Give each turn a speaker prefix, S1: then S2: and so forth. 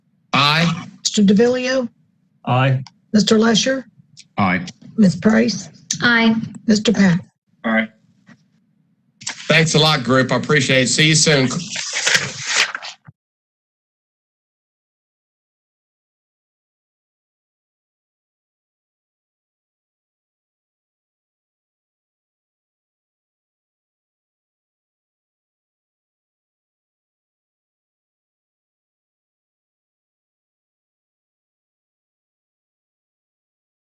S1: Mr. DeVillio,
S2: Aye.
S1: Mr. Lesher,
S3: Aye.
S1: Ms. Price,
S4: Aye.
S1: Mr. Pack.
S2: Aye.
S5: Thanks a lot, group. I appreciate it. See you soon.